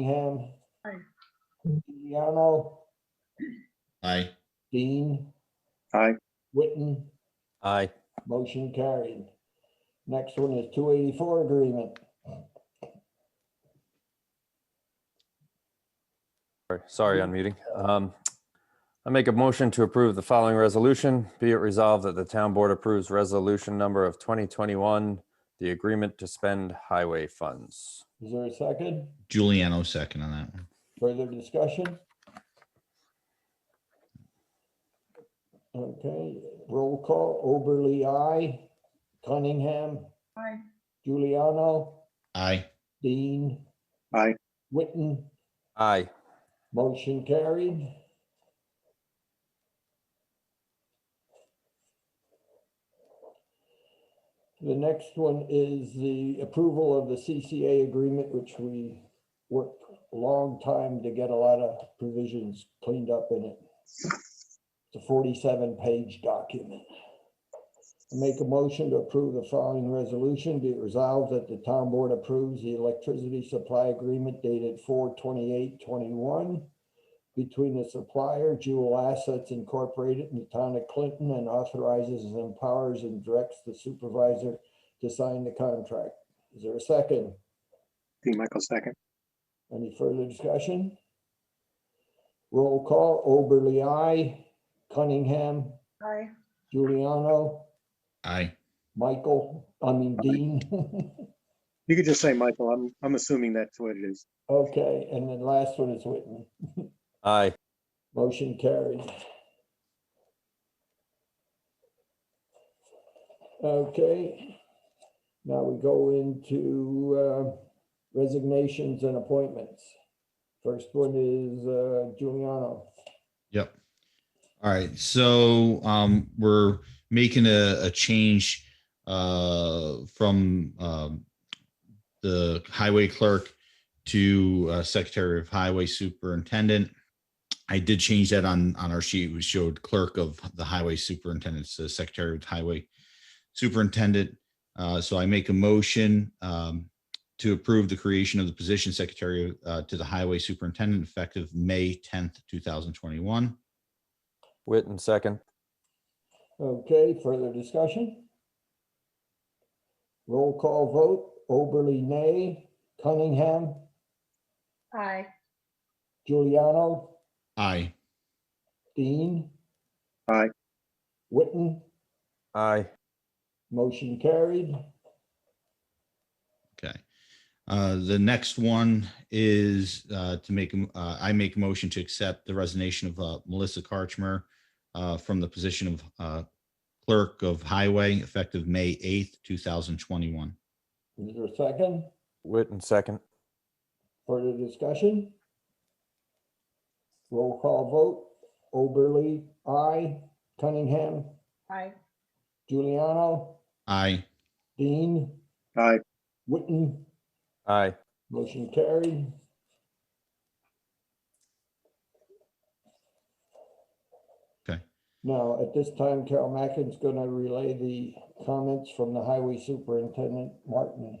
Cunningham. Aye. Giuliano, Aye. Dean, Aye. Witten, Aye. motion carried. Next one is two eighty-four agreement. Sorry- Sorry, unmuting. Um, I make a motion to approve the following resolution. Be it resolved that the town board approves resolution number of 2021, the agreement to spend highway funds. Is there a second? Giuliano second on that one. Further discussion? Okay, roll call, Oberly, I, Cunningham, Aye. Giuliano, Aye. Dean. Aye. Witten, Aye. motion carried. The next one is the approval of the CCA agreement, which we worked a long time to get a lot of provisions cleaned up in it. It's a forty-seven page document. I Make a motion to approve the following resolution. Be it resolved that the town board approves the electricity supply agreement dated 428-21 between the supplier Jewel Assets Incorporated and the town of Clinton and authorizes and empowers and directs the supervisor to sign the contract. Is there a second? D. Michael second. Any further discussion? Roll call, Oberly, I, Cunningham, Aye. Giuliano, Aye. Michael, I mean Dean. You could just say Michael. I'm, I'm assuming that's what it is. Okay, and then last one is Whitman. Aye. Motion carried. Okay, now we go into uh, resignations and appointments. First one is uh, Giuliano. Yep. All right. So um, we're making a, a change uh, from um, the highway clerk to uh, secretary of highway superintendent. I did change that on on our sheet. We showed clerk of the highway superintendent, so secretary of highway superintendent. Uh, so I make a motion um, to approve the creation of the position secretary uh, to the highway superintendent effective May 10th, 2021. Witten, second. Okay, further discussion? Roll call vote, Oberly, nay. Cunningham, Aye. Giuliano, Aye. Dean. Aye. Whitten, Aye. motion carried. Okay. Uh, The next one is uh, to make, a- uh, I make a motion to accept the resignation of uh, Melissa Karchmer uh, from the position of uh, clerk of highway effective May 8th, 2021. Is there a second? Witten, second. Further discussion? Roll call vote. Oberly, I. Cunningham, Aye. Giuliano, Aye. Dean, Aye. Witten, Aye. motion carried. Okay. Now, at this time, Carol Mackin's gonna relay the comments from the highway superintendent, Martin.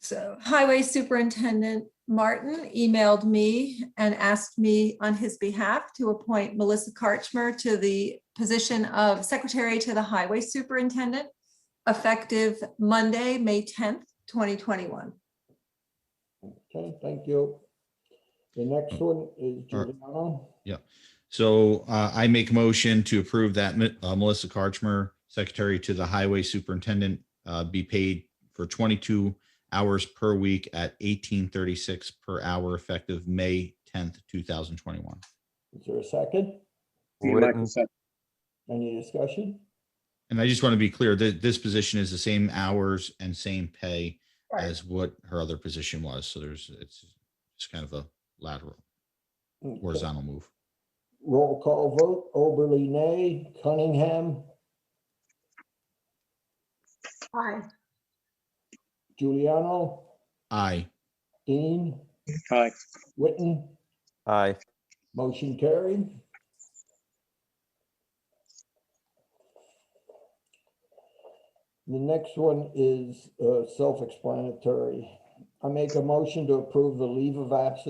So Highway Superintendent Martin emailed me and asked me on his behalf to appoint Melissa Karchmer to the position of Secretary to the Highway Superintendent effective Monday, May 10th, 2021. Okay, thank you. The next one is All right. Giuliano. So uh, I make a motion to approve that Mi- uh, Melissa Karchmer, Secretary to the Highway Superintendent, uh, be paid for 22 hours per week at 1836 per hour effective May 10th, 2021. Is there a second? D. Michael Witten. second. Any discussion? And I just want to be clear that this position is the same hours and same pay Right. as what her other position was. So there's, it's just kind of a lateral Okay. horizontal move. Roll call vote, Oberly nay, Cunningham, Aye. Giuliano, Aye. Dean, Aye. Witten, Aye. motion carried. The next one is uh, self-explanatory. I make a motion to approve the leave of absence